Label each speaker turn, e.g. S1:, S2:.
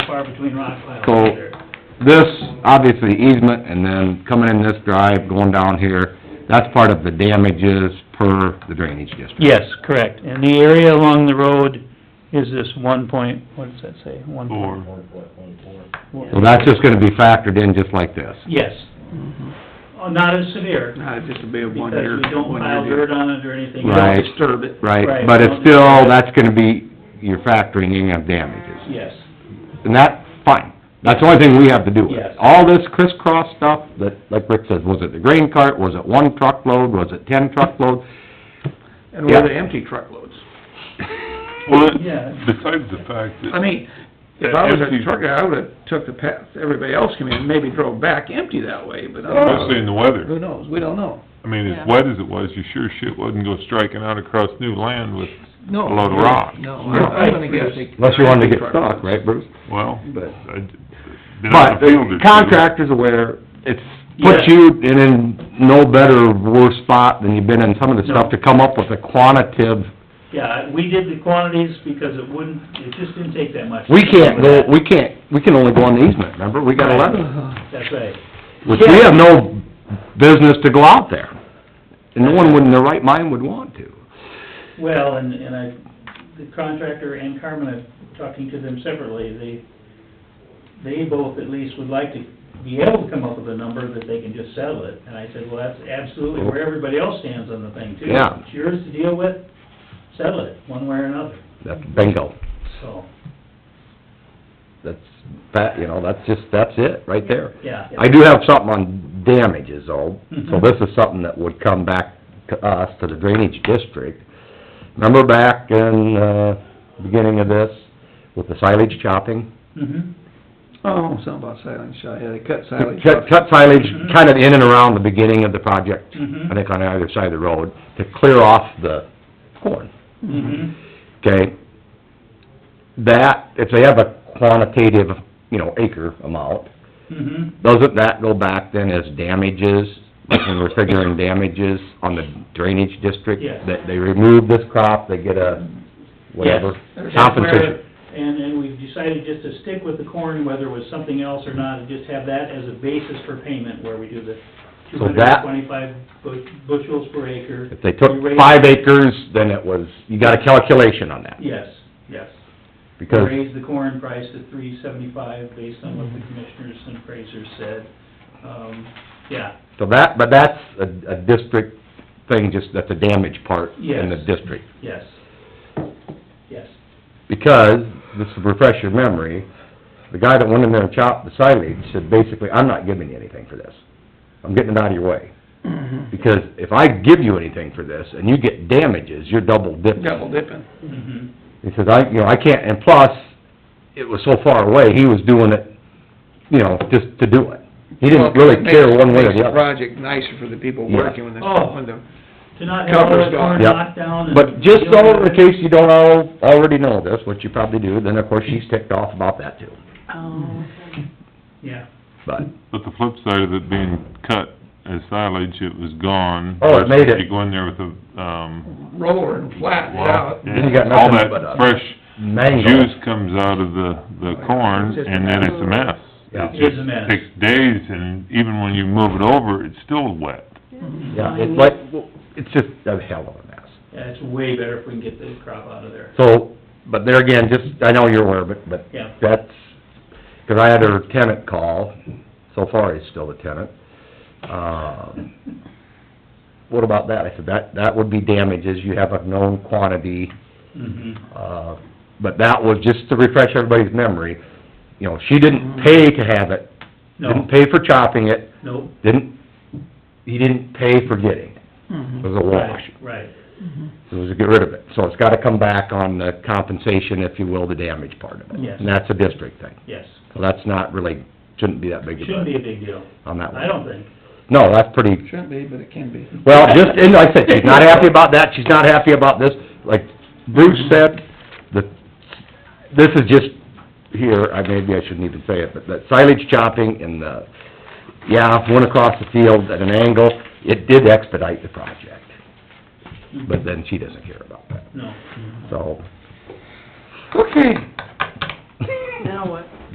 S1: far between rock piles
S2: So-
S1: out there.
S2: This, obviously easement, and then coming in this drive, going down here, that's part of the damages per the drainage district.
S3: Yes, correct. And the area along the road is this one point, what does that say? One point
S2: So that's just gonna be factored in just like this.
S3: Yes,
S1: Oh, Not as severe,
S4: Uh, just to be a
S1: because
S4: one year,
S1: we don't
S4: one
S1: pile
S4: year
S1: dirt
S4: deal.
S1: on it or anything.
S2: Right.
S4: Don't disturb it.
S2: Right,
S1: Right.
S2: but it's still, that's gonna be, you're factoring in of damages.
S1: Yes,
S2: And that, fine, that's the only thing we have to do. with it.
S1: Yes.
S2: All this crisscross stuff that, like Rick says, was it the grain cart, was it one truckload, was it ten truckload?
S4: And where
S2: Yeah.
S4: the empty truckloads.
S5: Well,
S1: Yeah.
S5: besides the fact that...
S4: I mean, if I
S5: That
S4: was
S5: empty-
S4: a trucker, I would've took the path everybody else came in, and maybe drove back empty that way, but I don't
S5: Especially
S4: know.
S5: in the weather.
S4: Who knows? We don't know.
S5: I mean,
S6: Yeah.
S5: as wet as it was, you sure shit wouldn't go striking out across new land with,
S4: No.
S5: A load of rock.
S4: No, I- I'm gonna guess they.
S2: Unless you wanted to get stuck, right, Bruce?
S5: well,
S2: But-
S5: I'd been on
S2: But
S5: the field or two.
S2: contractor's aware, it's, puts
S3: Yeah.
S2: you in a no better, or worse spot than you've been in some of the stuff to come up with a quantitative.
S1: yeah, we did the quantities because it wouldn't, it just didn't take that much.
S2: We can't go, we can't, we can only go on the easement, remember? We got
S1: Right.
S2: eleven,
S1: That's right.
S2: which we have no business to go out there. And no one would, in their right mind would want to.
S1: Well, and, and I, the contractor and Carmen, I'm talking to them separately, they, they both at least would like to be able to come up with a number that they can just settle it. And I said, well, that's absolutely where everybody else stands on the thing too.
S2: Yeah.
S1: It's yours to deal with, settle it, one way or another,
S2: That's bingo.
S1: so,
S2: That's, that, you know, that's just, that's it, right there.
S1: yeah.
S2: I do have something on damages though, so this is something that would come back to us, to the drainage district. Remember back in, uh, beginning of this, with the silage chopping?
S1: Mhm.
S4: Oh, something about silage, shot. yeah, they cut silage.
S2: Cut, cut silage kind of in and around the beginning of the project,
S1: Mhm.
S2: I think on either side of the road, to clear off the corn,
S1: Mhm.
S2: okay? That, if they have a quantitative, you know, acre amount,
S1: Mhm.
S2: Doesn't that go back then as damages, like when we're figuring damages on the drainage district?
S1: Yes.
S2: That they remove this crop, they get a whatever
S1: That's
S2: compensation?
S1: where- And, and we've decided just to stick with the corn, whether it was something else or not, and just have that as a basis for payment where we do the two
S2: So
S1: hundred
S2: that-
S1: and twenty-five bushels per acre.
S2: If they took
S1: We raise-
S2: five acres, then it was, you got a calculation on that,
S1: Yes, yes. We
S2: because,
S1: raised the corn price to three seventy-five based on what the commissioners and appraisers said. Um, yeah,
S2: so that, but that's a, a district thing, just, that's a damage part in the
S1: Yes.
S2: district.
S1: yes, yes.
S2: Because, this will refresh your memory, the guy that went in there and chopped the silage said basically, I'm not giving you anything for this. I'm getting it out of your way.
S4: Mhm.
S2: Because if I give you anything for this and you get damages, you're double dipping.
S4: Double dipping.
S1: Mhm.
S2: He says, I, you know, I can't, and plus, it was so far away, he was doing it, you know, just to do it. He didn't really care one way or
S4: Makes
S2: the other.
S4: project nicer for the people
S2: Yeah.
S4: working when the,
S1: Oh.
S4: when the
S1: To not have all
S4: Cover's
S1: that
S4: gone.
S1: corn
S2: Yep.
S1: knocked down and...
S2: But just so, in case you don't al- already know this, which you probably do, then of course she's ticked off about that too,
S6: Oh,
S1: Yeah,
S2: but.
S5: But the flip side of it being cut as silage, it was gone.
S2: Oh, it made it.
S5: You go in there with a, um...
S4: roller and flatten it out.
S2: Then you got
S5: yeah,
S2: nothing but
S5: All
S2: a
S5: that fresh
S2: Mango.
S5: juice comes out of the, the corn, and then it's a mess.
S2: Yeah.
S5: It
S1: It is
S5: just
S1: a mess.
S5: Takes days, and even when you move it over, it's still wet.
S4: Mm-hmm.
S2: Yeah, it's like, it's just a hell of a mess.
S1: yeah, it's way better if we can get the crop out of there.
S2: So, but there again, just, I know you're aware of it, but
S1: Yeah.
S2: that's, 'cause I had her tenant call, so far he's still a tenant. Um, What about that? I said, that, that would be damages, you have a known quantity,
S1: Mhm.
S2: uh, but that was, just to refresh everybody's memory, you know, she didn't pay to have it,
S1: Mm-hmm. No,
S2: didn't pay for chopping it,
S1: no,
S2: didn't, he didn't pay for getting it, it was a wash.
S1: right, right.
S4: Mm-hmm.
S2: It was to get rid of it. So it's gotta come back on the compensation, if you will, the damage part of it.
S1: Yes.
S2: And that's a district thing.
S1: Yes,
S2: So that's not really, shouldn't be that big of
S1: shouldn't be
S2: a,
S1: a big deal,
S2: on that one.
S1: I don't think.
S2: No, that's pretty,
S4: Shouldn't be, but it can be.
S2: well, just, and like I said, she's not happy about that, she's not happy about this. Like Bruce said, the, this is just here, I, maybe I shouldn't even say it, but that silage chopping and the, yeah, went across the field at an angle, it did expedite the project. Mm-hmm. But then she doesn't care about that,
S1: No.
S2: so.
S4: Okay,